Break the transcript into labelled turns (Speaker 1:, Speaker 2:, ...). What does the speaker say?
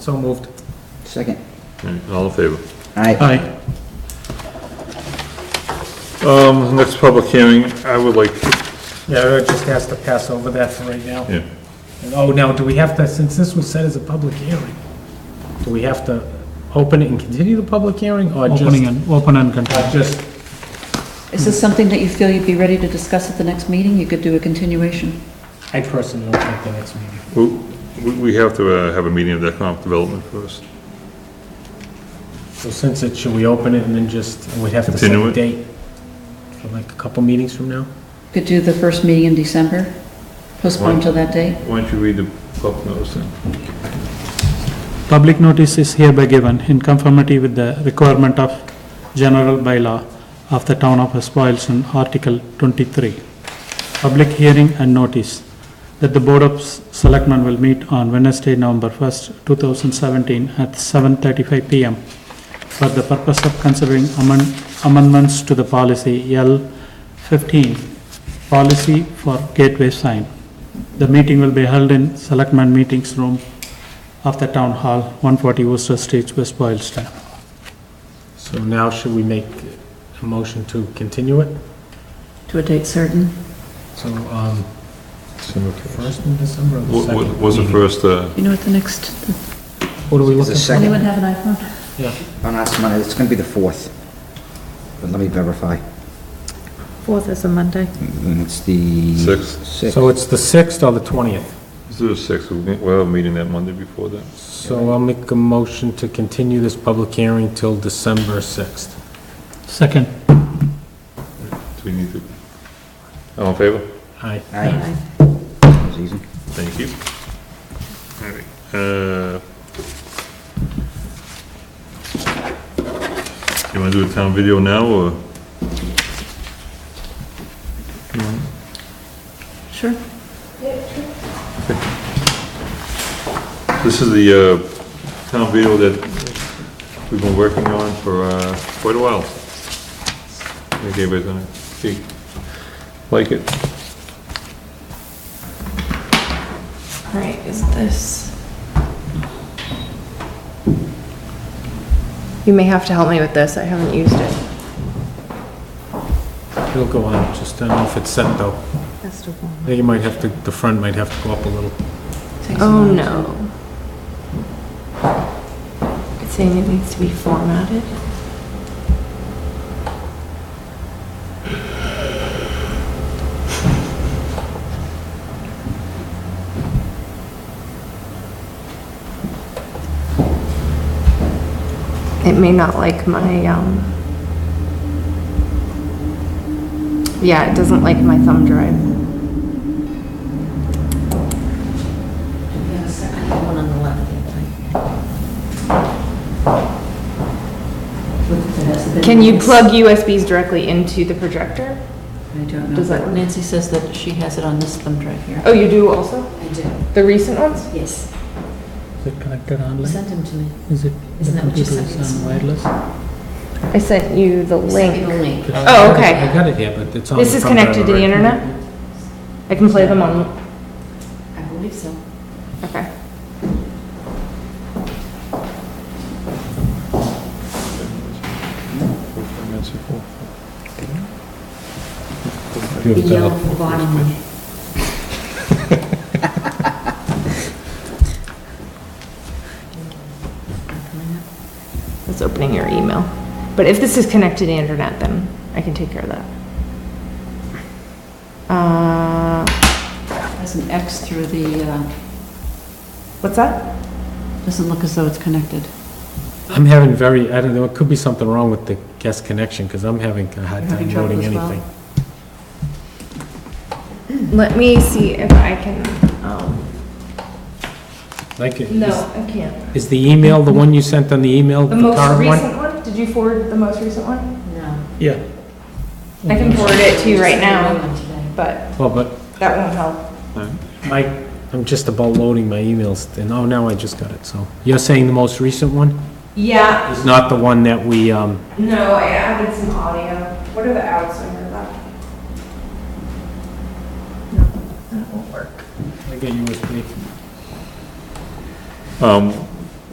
Speaker 1: So moved.
Speaker 2: Second.
Speaker 3: Right, Mm, All in favor?
Speaker 2: Aye.
Speaker 1: Aye.
Speaker 3: Um, next public hearing, I would like,
Speaker 1: Yeah, I would just ask to pass over that for right now.
Speaker 3: yeah,
Speaker 1: And, Oh, now, do we have to, since this was set as a public hearing, do we have to open it and continue the public hearing, or just?
Speaker 4: Opening and, open and continue.
Speaker 1: or just,
Speaker 5: Is this something that you feel you'd be ready to discuss at the next meeting? You could do a continuation.
Speaker 1: I personally don't think the next meeting.
Speaker 3: we, we- we have to uh, have a meeting of the economic development first.
Speaker 1: So since it, should we open it and then just, and we'd have to set
Speaker 3: Continue
Speaker 1: a
Speaker 3: it?
Speaker 1: date? For like a couple meetings from now?
Speaker 5: Could do the first meeting in December, postpone till that date.
Speaker 3: Why don't you read the public notice then?
Speaker 4: Public notice is hereby given in conformity with the requirement of general bylaw of the town of Espoilson, Article 23. Public hearing and notice that the Board of S- Selectmen will meet on Wednesday, November 1st, 2017 at 7:35 PM for the purpose of considering amend- amendments to the policy L15, policy for gateway sign. The meeting will be held in Selectmen Meetings Room of the Town Hall, 140 Worcester Street, West Boylston.
Speaker 1: So now should we make a motion to continue it?
Speaker 5: To a date certain.
Speaker 1: So, um,
Speaker 3: Wa-
Speaker 1: first in December or the
Speaker 3: wa-
Speaker 1: second?
Speaker 3: Was the
Speaker 1: meeting?
Speaker 3: first, uh,
Speaker 5: You know what the next,
Speaker 1: What are we
Speaker 2: Is the
Speaker 1: looking for?
Speaker 2: second,
Speaker 5: anyone have an iPhone?
Speaker 2: on us, Monday, it's gonna be the fourth. But let me verify.
Speaker 6: Fourth is a Monday.
Speaker 2: Mm, It's the...
Speaker 3: Sixth.
Speaker 2: Sixth.
Speaker 1: So it's the sixth or the twentieth?
Speaker 3: is there a sixth? We'll we'll have a meeting that Monday before that.
Speaker 1: So I'll make a motion to continue this public hearing till December 6th.
Speaker 4: Second,
Speaker 3: Do we need to? All in favor?
Speaker 1: Aye.
Speaker 2: Aye. That was easy.
Speaker 3: Thank you. All right, uh, You wanna do a town video now, or?
Speaker 5: Sure.
Speaker 3: This is the uh, town video that we've been working on for uh, quite a while. I think everybody's gonna see, like it.
Speaker 6: Right, is this? You may have to help me with this, I haven't used it.
Speaker 1: It'll go on, just don't know if it's set though. I think you might have to, the front might have to go up a little.
Speaker 6: Oh, no. It's saying it needs to be formatted. It may not like my, um, yeah, it doesn't like my thumb drive.
Speaker 5: One on the left.
Speaker 6: Can you plug USBs directly into the projector?
Speaker 5: I don't
Speaker 6: Does that
Speaker 5: know.
Speaker 6: work?
Speaker 5: Nancy says that she has it on this thumb drive here.
Speaker 6: Oh, you do also?
Speaker 5: I do,
Speaker 6: The recent ones?
Speaker 5: yes.
Speaker 4: is it connected online?
Speaker 5: them to me.
Speaker 4: Is it, the
Speaker 5: Isn't that what you
Speaker 4: computer
Speaker 5: said?
Speaker 4: is on wireless?
Speaker 6: I sent you the link.
Speaker 5: link.
Speaker 6: Oh, okay.
Speaker 1: I got it here, but it's on.
Speaker 6: This
Speaker 1: the
Speaker 6: is
Speaker 1: front
Speaker 6: connected to
Speaker 1: driver,
Speaker 6: the
Speaker 1: right?
Speaker 6: internet? I can play them on,
Speaker 5: I believe so.
Speaker 6: okay.
Speaker 5: The
Speaker 6: uh,
Speaker 5: yellow bottom one.
Speaker 6: It's opening your email. But if this is connected to the internet, then I can take care of that. Uh,
Speaker 5: Has an X through the, uh,
Speaker 6: what's that?
Speaker 5: doesn't look as though it's connected.
Speaker 1: I'm having very, I don't know, it could be something wrong with the guest connection because I'm having a hard
Speaker 5: You're having
Speaker 1: time
Speaker 5: trouble
Speaker 1: loading
Speaker 5: as well?
Speaker 1: anything.
Speaker 6: Let me see if I can, um,
Speaker 1: Like,
Speaker 6: no,
Speaker 1: is-
Speaker 6: I can't.
Speaker 1: is the email, the one you sent on the email,
Speaker 6: The
Speaker 1: the
Speaker 6: most
Speaker 1: current one?
Speaker 6: recent one? Did you forward the most recent one?
Speaker 5: No.
Speaker 4: Yeah.
Speaker 6: I can forward it to you right now,
Speaker 5: now.
Speaker 6: but
Speaker 1: Well, but
Speaker 6: that won't help.
Speaker 1: my, I'm just about loading my emails and, oh, now I just got it, so. You're saying the most recent one
Speaker 6: Yeah,
Speaker 1: is not the one that we, um,
Speaker 6: No, I added some audio. What are the outs under that? No, that won't work.
Speaker 1: I get USB.
Speaker 3: Um,